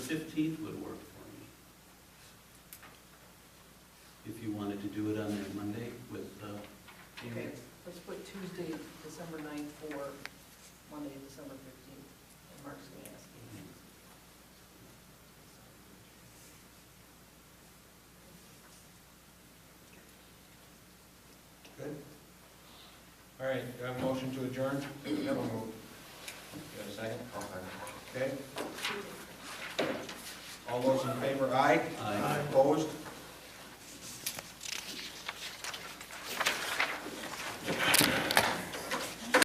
fifteenth would work for me. If you wanted to do it on that Monday with, uh, Okay, let's put Tuesday, December 9th for Monday, December 15th. And Mark's going to ask you. Good. All right, do I have a motion to adjourn? Never move. You have a second? Okay. All those in favor, aye? Aye. Opposed?